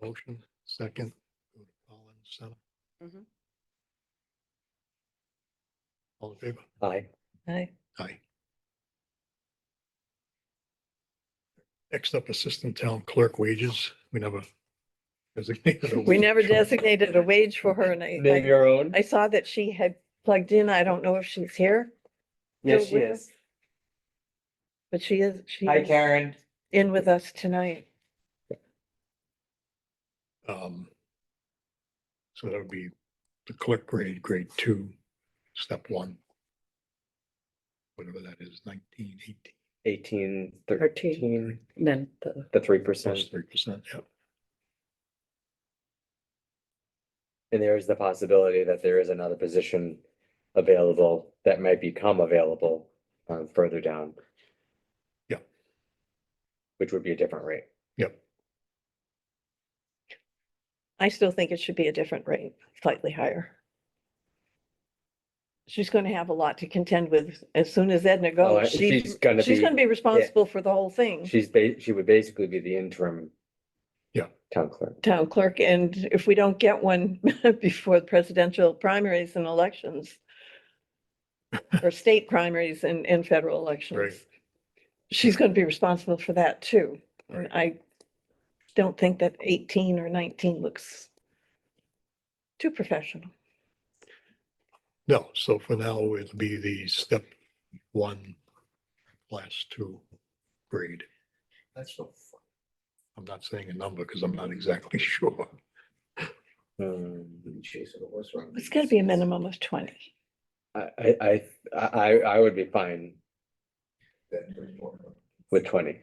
Motion, second. All in seven. Mhm. All in favor? Aye. Aye. Aye. Next up, Assistant Town Clerk wages. We never designated. a We wage never for- designated a wage for her and I- Name I, your own? I saw that she had plugged in. I don't know if she's here, Yes, she with us. is. but she is, she Hi, is Karen. in with us tonight. Um, So that would be the clerk grade, grade two, step one. Whatever that is, nineteen, eighteen, Eighteen, Thirteen. thirteen, Then the, the three percent. plus three percent, yeah. And there is the possibility that there is another position available that might become available um further down. Yeah. Which would be a different rate. Yep, I still think it should be a different rate, slightly higher. She's going to have a lot to contend with as soon as Edna Oh, I- goes. she's She's, gonna she's be- going to be responsible for the whole thing. She's ba- she would basically be the interim. Yeah. Town clerk. town clerk, and if we don't get one before the presidential primaries and elections, or state primaries and, and federal elections, she's going to be responsible for that too. And I don't think that eighteen or nineteen looks too professional. no, so for now, it'll be the step one, last two grade. That's so fun. I'm not saying a number because I'm not exactly sure. Um, It's got to be a minimum of twenty. I I I I I would be fine with twenty.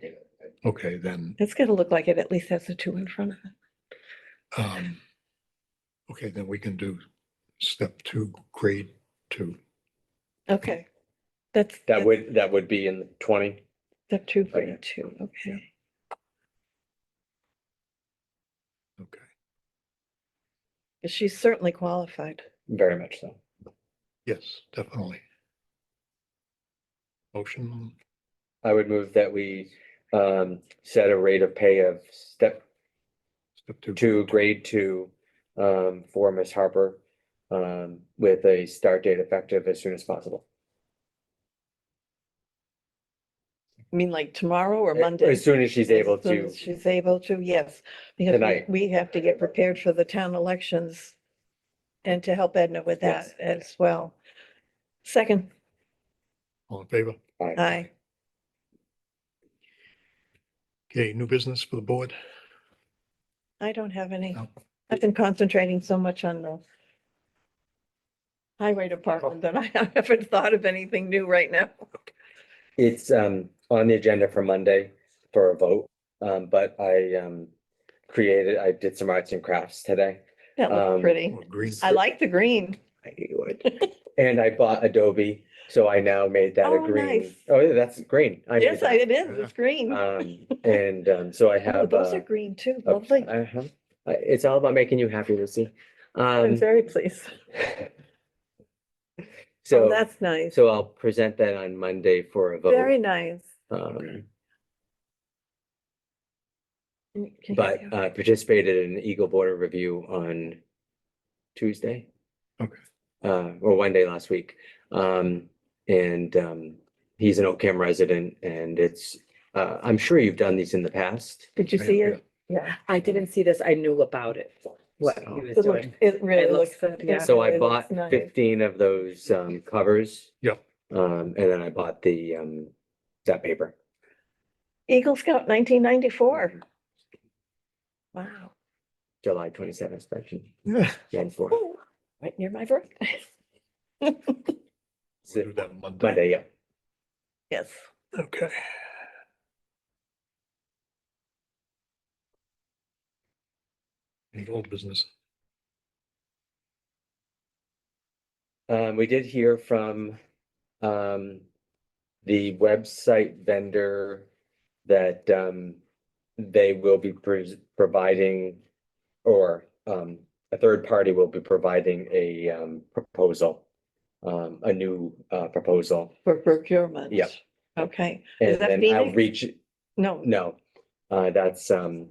Okay, then, It's going to look like it at least has a two in front of it. um, okay, then we can do step two, grade two. Okay, that's. That would, that would be in twenty. Step two, Okay. grade two, okay. Okay, 'Cause She's certainly qualified. Very much so. yes, definitely. Motion, I would move that we um set a rate of pay of step step two. two, grade two. Um, for Ms. Harper, um, with a start date effective as soon as possible. I mean, like tomorrow or Eh, Monday? As soon as she's As able soon to, as She's able to, yes, because we- Tonight. we have to get prepared for the town elections and to help Edna with Yes. that as well. Second, All in favor? Aye. aye. Okay, new business for the board? I don't have any. No. I've been concentrating so much on the highway department that I haven't thought of anything new right now. it's um on the agenda for Monday for a vote. Um, but I um created, I did some arts and crafts today. That Um, looks pretty. Or green? I like the green. I knew you would. And I bought Adobe, so I now made that a Oh, green. nice. Oh, yeah, that's green. I made Yes, I- that. it is. It's green. Um, and um, so I Oh, have. Those uh, are green too. a- Lovely. uh-huh. Uh, It's all about making you happy, Lucy. I'm Um, very pleased. Oh, so, that's nice. so I'll present that on Monday for a Very vote. nice. Um, Can- can you but do- I participated in Eagle Border Review on Tuesday. Okay. Uh, or one day last week. Um, and, um, he's an Oakham resident and it's, uh, I'm sure you've done these in the past. Did you Yeah, see yeah. it? Yeah. I didn't see this. I knew about it, what So- he was It looks, doing. it really It looks. looks good, yeah. So it I looks bought nice. fifteen of those um covers. Yep. Um, and then I bought the um, that paper. Eagle Scout nineteen ninety-four. Wow. July twenty seventh special. Yeah, Jan four, Ooh, Right near my birthday. It's we'll do a- that Monday. Monday, yeah. Yes. Okay. Any old business? Um, we did hear from um the website vendor that um they will be pres- providing or um a third party will be providing a um proposal, um a new uh proposal. For procurement. Yep. Okay. Is And that then Phoenix? outreach, No, no, uh, that's um